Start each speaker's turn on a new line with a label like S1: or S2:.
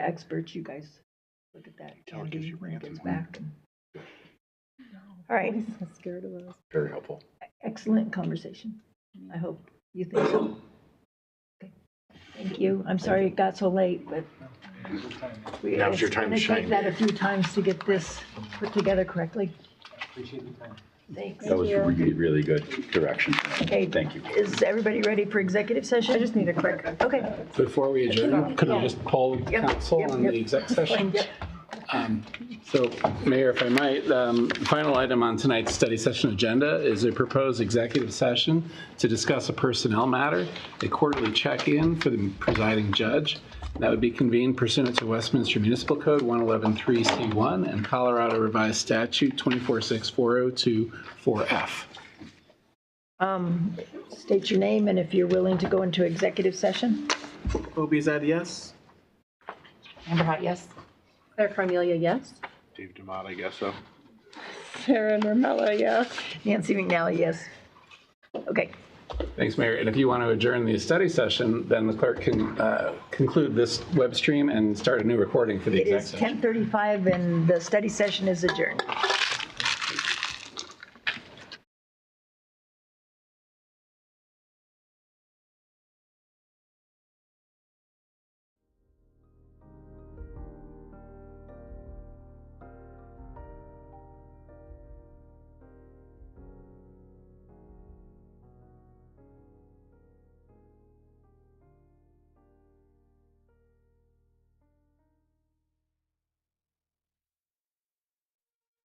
S1: experts, you guys look at that.
S2: Tell her gives you
S1: when it
S2: rants
S1: gets
S2: and-
S1: back.
S3: All right.
S4: Scared of us.
S2: Very helpful.
S1: Excellent conversation. I hope you think so. Okay. Thank you. I'm sorry it got so late, but. we-
S2: Now's your
S1: it's
S2: time to
S1: gonna
S2: shine.
S1: Take that a few times to get this put together correctly.
S5: Appreciate the time.
S1: Thanks.
S6: That was really, really good direction.
S1: Okay.
S6: Thank you.
S1: Is everybody ready for executive session? I just need a quick. Okay.
S7: Before we adjourn, could I just poll the
S1: Yep,
S7: council
S1: yep,
S7: on
S1: yep.
S7: the exec session?
S1: Yep.
S7: Um, So, Mayor, if I might, um, the final item on tonight's study session agenda is a proposed executive session to discuss a personnel matter, a quarterly check-in for the presiding judge. That would be convened pursuant to Westminster Municipal Code 1113C1 and Colorado Revised Statute 246402-4F.
S1: Um, State your name and if you're willing to go into executive session.
S7: Obi, is that a yes?
S4: Amber Hot, yes. Claire Carmelia, yes.
S2: Dave Demott, I guess so.
S4: Sarah Normella, yes.
S1: Nancy McNally, yes. Okay.
S7: Thanks, Mayor. And if you want to adjourn the study session, then the clerk can uh, conclude this web stream and start a new recording for the
S1: It
S7: exec
S1: is
S7: session.
S1: 10:35 and the study session is adjourned.